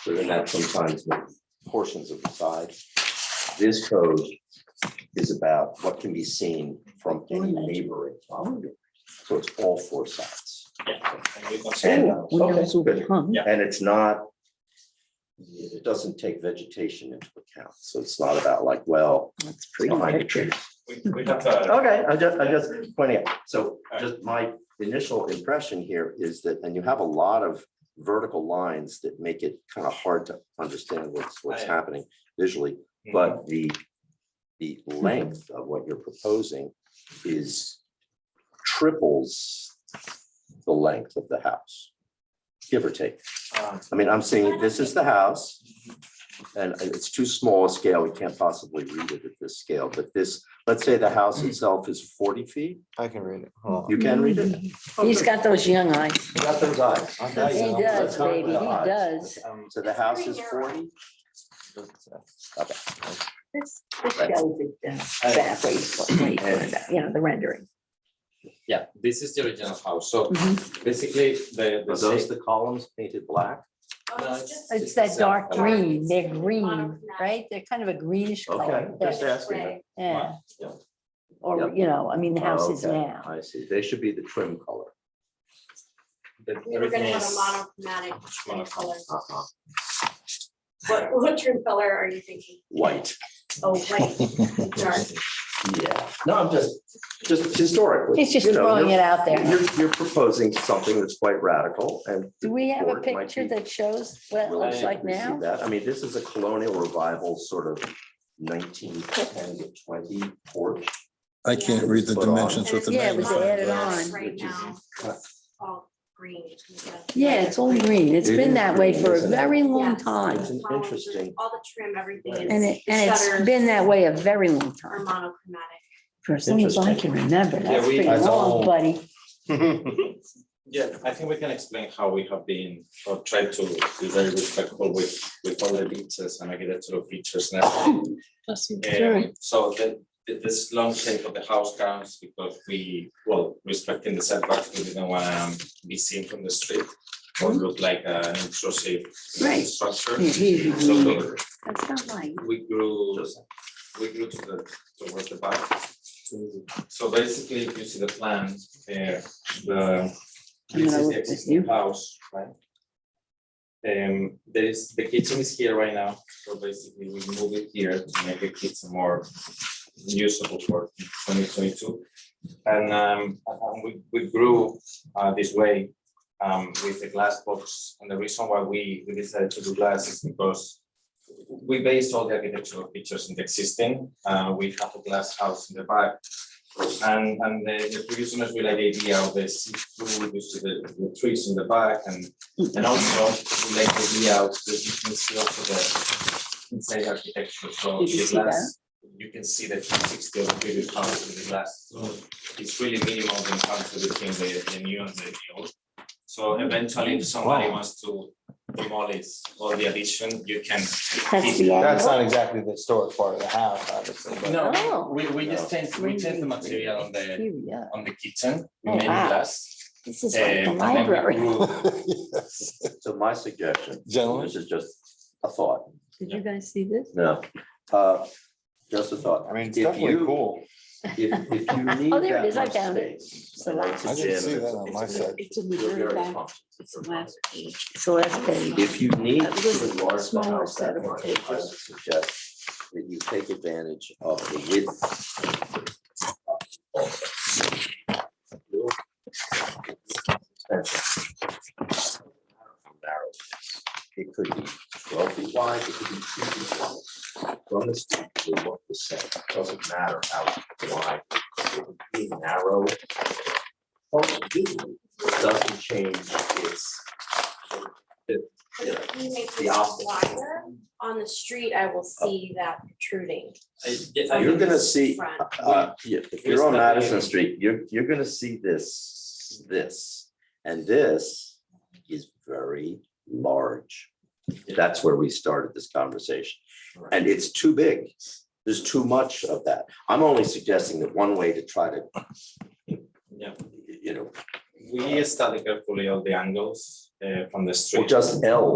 So then that sometimes the portions of the side. This code is about what can be seen from any neighboring property. So it's all four sides. And, Oh, when I was okay, over good. home. And it's not, it doesn't take vegetation into account. So it's not about like, well, That's pretty behind the picture. trees. We, we have uh, to, Okay, I just, I just pointing out, so just my initial impression here is that, and you have a lot of vertical lines that make it kind of hard to understand what's, what's I- happening visually, Mm-hmm. but the, the length of what you're proposing is triples the length of the house, give or take. uh, um, I mean, I'm seeing this is the house. And it's too small a scale. We can't possibly read it at this scale, but this, let's say the house itself is forty feet. I can read it. Hold on. You can read it? He's got those young eyes. You got those eyes. He He does, baby, he does. Um, So the house is forty? This, this Right. shows it uh, exactly what we put it at, you know, the rendering. Yeah, this is the original house, so Mhm. basically the. the Are those shape- the columns painted black? Oh, No, it's- It's that dark uh, green, they're green, right? They're kind of a greenish Okay, color. just asking. Yeah, yeah. or, Yep. Oh, you know, I mean, the house is Okay, now. I see. They should be the trim color. the- We were Everything gonna have is. a monochromatic trim color. Uh-huh. What, what trim color are you thinking? White. Oh, white, dark. Yeah. No, I'm just, just historically. He's just you know, throwing you're- it out there. You're, you're proposing something that's quite radical and. Do we have a board might picture be- that shows what it Will looks you like see now? that? I mean, this is a colonial revival sort of nineteen ten to twenty porch. I can't Yeah. read the Put on. dimensions with the Yeah, it was magnifying added glass. on. Right Which is now, cut. it's all green. Yeah, it's all green. It's It been is that way green, for a isn't it? very long Yes. time. It's an Columns, interesting- All the trim, everything is. And it, and it's shutters been that way a very long Or time, monochromatic. for as long as I can Interesting. remember. That's we- pretty that's long, all- buddy. Yeah, I think we can explain how we have been, or tried to be very respectful with, with all the details and architectural features and everything. Um, So the, the, this long shape of the house comes because we, well, respecting the setback, we didn't want to be seen from the street or Mm-hmm. look like an intrusive Right. structure. Yeah, here So you go. the- That's not like, we grew, Just- we grew to the, towards the back. So basically, if you see the plan, uh, the, I'm this gonna is look the at existing you. house, right? Um, there is, the kitchen is here right now, so basically we move it here to make the kitchen more usable for twenty twenty-two. And, um, and we, we grew, uh, this way, um, with the glass box. And the reason why we, we decided to do glass is because we based all the architectural features in the existing, uh, we have a glass house in the back. And, and the, the previous owners will like the idea of the see-through, you see the, the trees in the back and, and also we like the idea of the, you can see also the inside architecture, so Did you the see glass. You can see the three sixty of the previous house with the glass, so it's really minimal the difference between the, the new and the old. So eventually, if somebody wants to demolish all the addition, you can That's the That's end. not exactly the historic part of the house, obviously, but Oh. No, we, we just changed, we changed the material on the, Here we are. on the kitchen, we Oh, made it wow. glass. This is um, like the and then we library. grew- So my suggestion, gentlemen, this is just a thought, Did you guys see this? no, uh, just a thought. I mean, it's If definitely you- cool. If, if you need Oh, there it is. I that much found it. space, It's the and last- it's a I gym, didn't see that it's- on it's my a- side. It's in the you're very back. functional. It's the last page. It's the last page. If you need That to was a enlarge the smaller house set that of much, I potatoes. would suggest that you take advantage of the width. How narrow It is. It could be twelve feet wide, it could be two feet wide. From the street, it will look the same, doesn't matter how wide, it would be narrow. Functionally, It doesn't change its If you make The this opposite. wider, on the street, I will see that protruding. I- yeah, I You're think gonna it's- see, front. uh, yeah, if you're on Madison Street, you're, you're gonna see this, this, and this is very large. That's where we started this conversation, and it's too big. There's too much of that. I'm only suggesting that one way to try to, Yeah, you know, we studied carefully all the angles, uh, from the street. or just L